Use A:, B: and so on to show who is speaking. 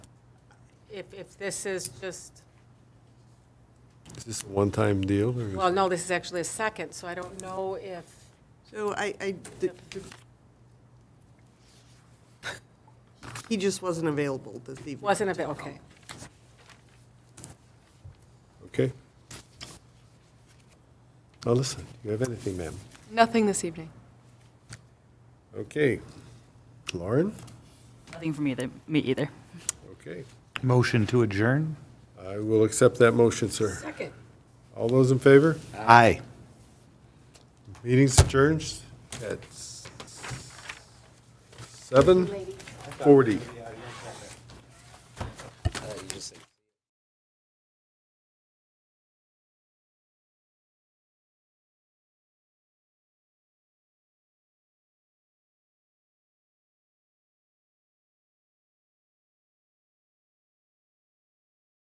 A: if, if this is just,
B: Is this a one-time deal, or is
A: well, no, this is actually a second, so I don't know if,
C: So I, I, the- the- he just wasn't available this evening.
A: wasn't a bit, okay.
B: Okay. Now, listen, do you have anything, ma'am?
D: Nothing this evening.
B: Okay. Lauren?
E: Nothing from either, me either.
B: Okay.
F: Motion to adjourn?
B: I will accept that motion, sir.
A: Second.
B: All those in favor?
F: Aye.
B: Meeting's adjourned at s- 7:40.